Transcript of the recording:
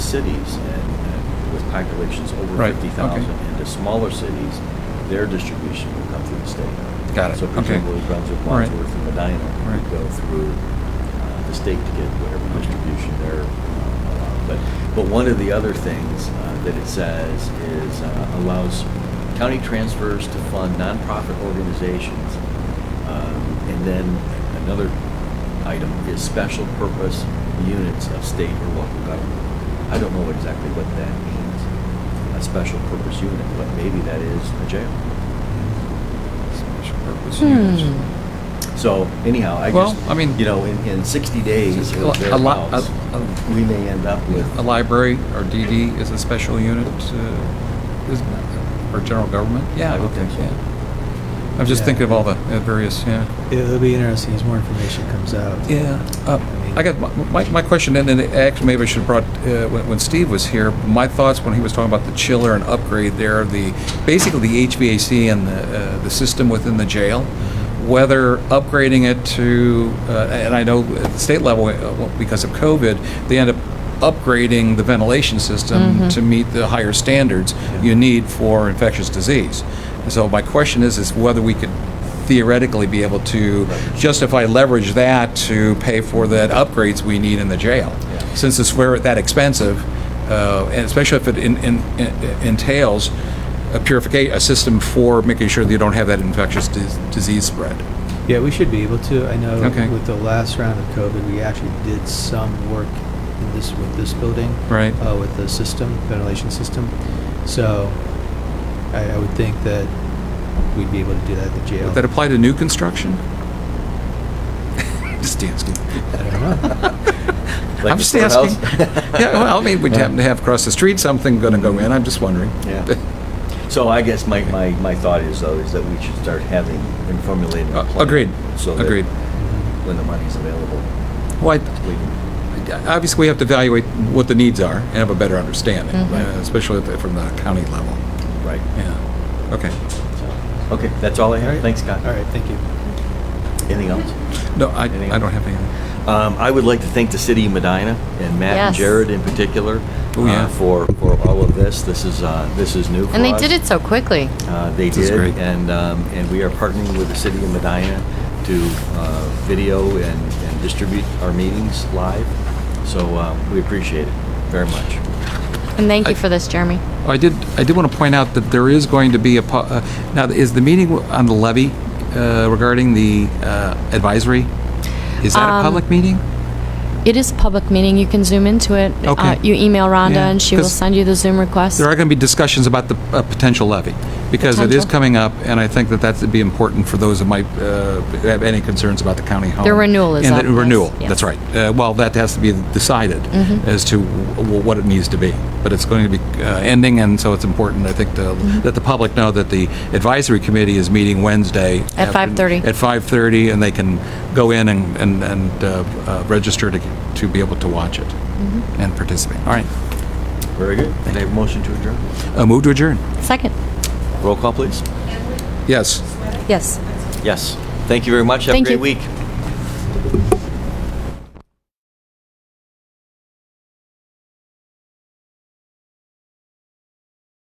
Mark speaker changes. Speaker 1: cities and and with populations over
Speaker 2: Right, okay.
Speaker 1: 50,000 into smaller cities, their distribution will come through the state.
Speaker 2: Got it,
Speaker 1: So
Speaker 2: okay.
Speaker 1: presumably Brunswick,
Speaker 2: All right.
Speaker 1: Wadsworth, and Medina
Speaker 2: Right.
Speaker 1: would go through uh, the state to get whatever distribution they're uh, allowed. But, but one of the other things uh, that it says is uh, allows county transfers to fund nonprofit organizations. Um, And then another item is special purpose units of state or local government. I don't know exactly what that means, a special purpose unit, but maybe that is a jail.
Speaker 2: Special purpose units.
Speaker 3: Hmm.
Speaker 1: So anyhow, I
Speaker 2: Well,
Speaker 1: just,
Speaker 2: I mean-
Speaker 1: you know, in, in 60 days
Speaker 2: A
Speaker 1: or
Speaker 2: li- a li- a-
Speaker 1: thereabouts,
Speaker 2: a-
Speaker 1: we may end up with.
Speaker 2: A library or DD is a special unit, uh, isn't it? Or general government?
Speaker 1: I would
Speaker 2: okay,
Speaker 1: think so.
Speaker 2: yeah. I'm just
Speaker 4: Yeah.
Speaker 2: thinking of all the uh, various, yeah.
Speaker 4: It'll be interesting as more information comes out.
Speaker 2: Yeah. Uh, I got, my, my question, and, and actually maybe I should have brought, uh, when, when Steve was here, my thoughts when he was talking about the chiller and upgrade there, the, basically the HVAC and the, uh, the system within the jail, whether upgrading it to, uh, and I know at the state level, uh, well, because of COVID, they end up upgrading the ventilation system to meet the higher standards you need for infectious disease. And so my question is, is whether we could theoretically be able to justify leverage that to pay for the upgrades we need in the jail.
Speaker 1: Yeah.
Speaker 2: Since it's where that expensive, uh, and especially if it in- in- in- entails a purification, a system for making sure that you don't have that infectious dis- disease spread.
Speaker 4: Yeah, we should be able to. I know
Speaker 2: Okay.
Speaker 4: with the last round of COVID, we actually did some work in this, with this building.
Speaker 2: Right.
Speaker 1: Oh,
Speaker 4: Uh, with the system, ventilation system. So I, I would think that we'd be able to do that at the jail.
Speaker 2: Would that apply to new construction? Just asking.
Speaker 4: I don't know.
Speaker 1: like the
Speaker 2: I'm just asking.
Speaker 1: courthouse.
Speaker 2: Yeah, well, I mean, we'd happen to have across the street something going to go in, I'm just wondering.
Speaker 1: Yeah. So I guess my, my, my thought is though, is that we should start having and formulating a
Speaker 2: Uh,
Speaker 1: plan.
Speaker 2: Agreed,
Speaker 1: So that
Speaker 2: agreed.
Speaker 1: when the money's available,
Speaker 2: Well, I-
Speaker 1: we can.
Speaker 2: Obviously, we have to evaluate what the needs are and have a better understanding,
Speaker 1: Right.
Speaker 2: uh, especially at the- from the county level.
Speaker 1: Right.
Speaker 2: Yeah. Okay.
Speaker 1: So, Okay, that's all I
Speaker 4: All
Speaker 1: have.
Speaker 4: right.
Speaker 1: Thanks, Scott.
Speaker 4: All right, thank you.
Speaker 1: Anything else?
Speaker 2: No, I,
Speaker 1: Anything
Speaker 2: I don't
Speaker 1: else?
Speaker 2: have anything.
Speaker 1: Um, I would like to thank the city of Medina and Matt and
Speaker 3: Yes.
Speaker 1: Jared in particular
Speaker 2: Oh, yeah.
Speaker 1: uh, for, for all of this. This is, uh, this is new for us.
Speaker 3: And they did it so quickly.
Speaker 1: Uh, They
Speaker 2: This is
Speaker 1: did,
Speaker 2: great.
Speaker 1: and, um, and we are partnering with the city of Medina to uh, video and and distribute our meetings live, so uh, we appreciate it very much.
Speaker 3: And thank you
Speaker 2: I-
Speaker 3: for this, Jeremy.
Speaker 2: Oh, I did, I did want to point out that there is going to be a, po- uh, now, is the meeting on the levy uh, regarding the uh, advisory, is that a
Speaker 3: Um,
Speaker 2: public meeting?
Speaker 3: It is a public meeting. You can zoom into it.
Speaker 2: Okay.
Speaker 3: Uh, you email Rhonda
Speaker 2: Yeah,
Speaker 3: and she will
Speaker 2: 'cause
Speaker 3: send you the Zoom request.
Speaker 2: There are going to be discussions about the uh, potential levy, because it is
Speaker 3: Potential.
Speaker 2: coming up, and I think that that's would be important for those that might uh, have any concerns about the county home.
Speaker 3: Their renewal is
Speaker 2: And
Speaker 3: up,
Speaker 2: the renewal,
Speaker 3: yes, Mm-hmm.
Speaker 2: that's
Speaker 3: yes.
Speaker 2: right. Uh, Well, that has to be decided as to w- what it needs to be, but it's going to be uh, ending, and so it's important, I think, to-
Speaker 3: Mm-hmm.
Speaker 2: that the public know that the advisory committee is meeting Wednesday.
Speaker 3: At
Speaker 2: after-
Speaker 3: 5:30.
Speaker 2: At 5:30, and they can go in and, and- and uh, uh, register to, to be able to watch it
Speaker 3: Mm-hmm.
Speaker 2: and participate. All right,
Speaker 1: Very good. Can I have a motion to adjourn?
Speaker 2: Uh, move to adjourn.
Speaker 3: Second.
Speaker 1: Roll call, please.
Speaker 2: Yes.
Speaker 3: Yes.
Speaker 1: Yes. Thank you very much. Have a
Speaker 3: Thank
Speaker 1: great
Speaker 3: you.
Speaker 1: week.